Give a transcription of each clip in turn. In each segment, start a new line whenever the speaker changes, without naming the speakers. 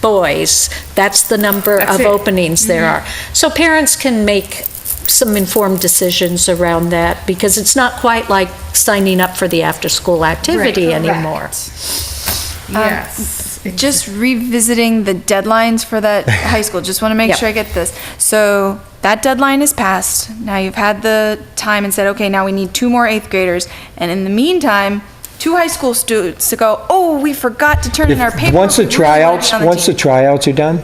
boys, that's the number
That's
of
it. Mm-hmm.
openings there are. So parents can make some informed decisions around that, because it's not quite like signing up for the after-school activity
Correct.
anymore.
Yes.
Um, Just revisiting the deadlines for that high school, just want to make
Yep.
sure I get this. So that deadline is passed. Now you've had the time and said, okay, now we need two more eighth graders. And in the meantime, two high school students to go, oh, we forgot to turn in our
If-
paper.
Once
we
the
really wanted to
tryouts,
be on the
once the
team."
tryouts are done,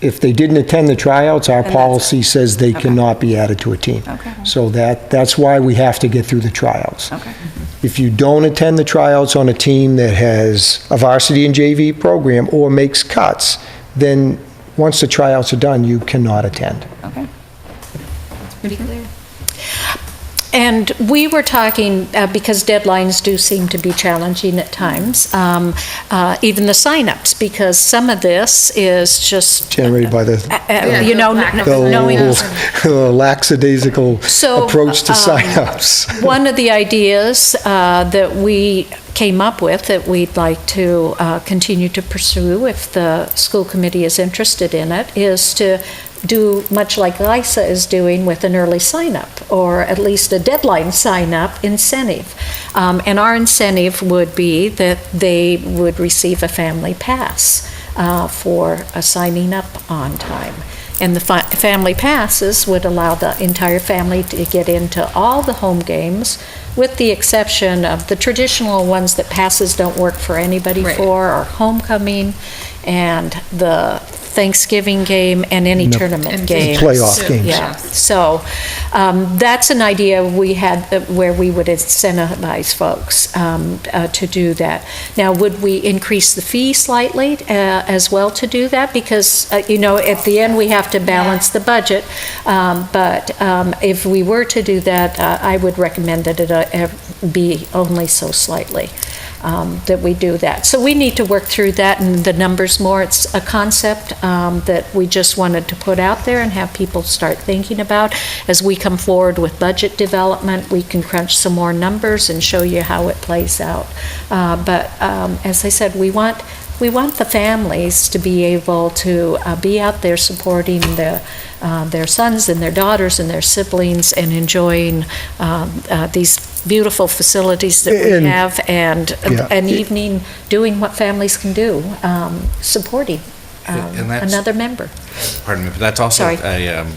if they didn't attend the tryouts, our
that's
policy says they
Okay.
cannot be added to a team.
Okay.
So that, that's why we have to get through the tryouts.
Okay.
If you don't attend the tryouts on a team that has a varsity and JV program or makes cuts, then once the tryouts are done, you cannot attend.
Okay.
Mm-hmm. And we were talking, uh, because deadlines do seem to be challenging at times, um, uh, even the signups, because some of this is just,
Generated by the,
uh, uh, you know,
lack
kn-
of
knowing
the lackadaisical
So,
approach to
um,
signups.
One of the ideas uh, that we came up with that we'd like to uh, continue to pursue if the school committee is interested in it is to do much like LISA is doing with an early sign-up or at least a deadline sign-up incentive. Um, And our incentive would be that they would receive a family pass uh, for uh, signing up on time. And the fi- family passes would allow the entire family to get into all the home games, with the exception of the traditional ones that passes don't work for anybody
Right.
for, or homecoming, and the Thanksgiving game, and any
And the-
tournament
And
games.
Playoff
Yeah.
games.
Yeah, so um, that's an idea we had that- where we would incentivize folks um, uh, to do that. Now, would we increase the fee slightly uh, as well to do that? Because, uh, you know, at the end, we have to balance the budget. Um, But um, if we were to do that, uh, I would recommend that it uh, ev- be only so slightly um, that we do that. So we need to work through that and the numbers more. It's a concept um, that we just wanted to put out there and have people start thinking about. As we come forward with budget development, we can crunch some more numbers and show you how it plays out. Uh, But um, as I said, we want, we want the families to be able to uh, be out there supporting the, uh, their sons and their daughters and their siblings and enjoying um, uh, these beautiful facilities that we
And-
have and
Yeah.
an evening doing what families can do, um, supporting um,
And that's-
another member.
Pardon me, but that's also,
Sorry.
a, um,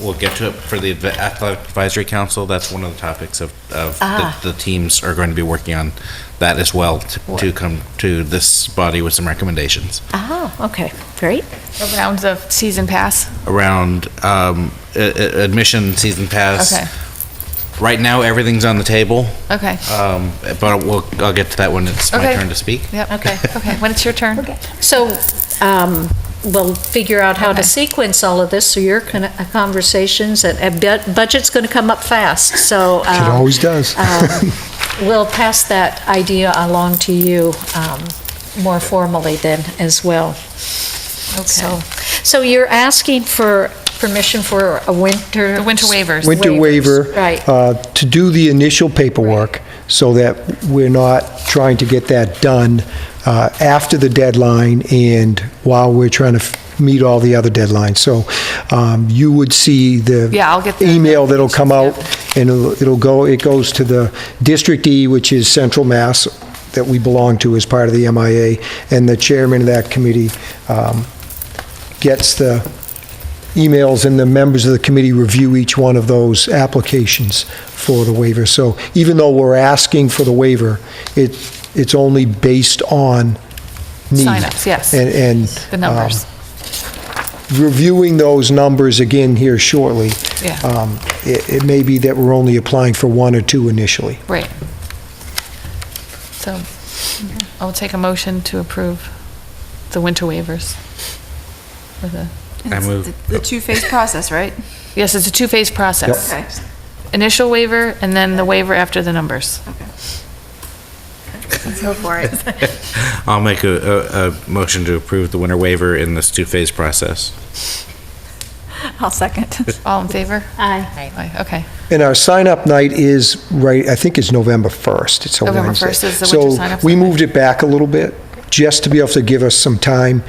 we'll get to it for the adv- athletic advisory council. That's one of the topics of, of
Ah.
the, the teams are going to be working on that as well to, to come to this body with some recommendations
Ah, okay, great.
Rounds of season pass.
around um, a- a- admission, season pass.
Okay.
Right now, everything's on the table,
Okay.
um, but we'll, I'll get to that when it's my
Okay.
turn to speak.
Yep. Okay. Okay. When it's your turn.
So um, we'll figure out how to
Okay.
sequence all of this, so your con- uh, conversations, and- and bu- budget's going to come up fast, so.
It
um,
always does.
um, We'll pass that idea along to you um, more formally then as well. So, so you're asking for permission for a winter?
The winter waivers.
winter waiver.
Right.
uh, To do the initial paperwork, so that we're not trying to get that done uh, after the deadline and while we're trying to f- meet all the other deadlines. So um, you would see the.
Yeah, I'll get the-
Email that'll come out, and it'll it'll go, it goes to the District E, which is Central Mass, that we belong to as part of the MIA, and the chairman of that committee um, gets the emails and the members of the committee review each one of those applications for the waiver. So even though we're asking for the waiver, it, it's only based on need.
Signups, yes.
And, and.
The numbers.
um, Reviewing those numbers again here shortly.
Yeah.
um, It, it may be that we're only applying for one or two initially.
Right. So I'll take a motion to approve the winter waivers. For the-
I
It's
move-
The the two-phase process, right?
Yes, it's a two-phase process.
Okay.
Initial waiver and then the waiver after the numbers.
Go for it.
I'll make a, a, a motion to approve the winter waiver in this two-phase process.
I'll second.
All in favor?
Aye.
Aye, Okay.
And our sign-up night is, right, I think it's November 1st. It's a Wednesday.
November 1st is the winter sign-up
So we
night.
moved it back a little bit, just to be able to give us some time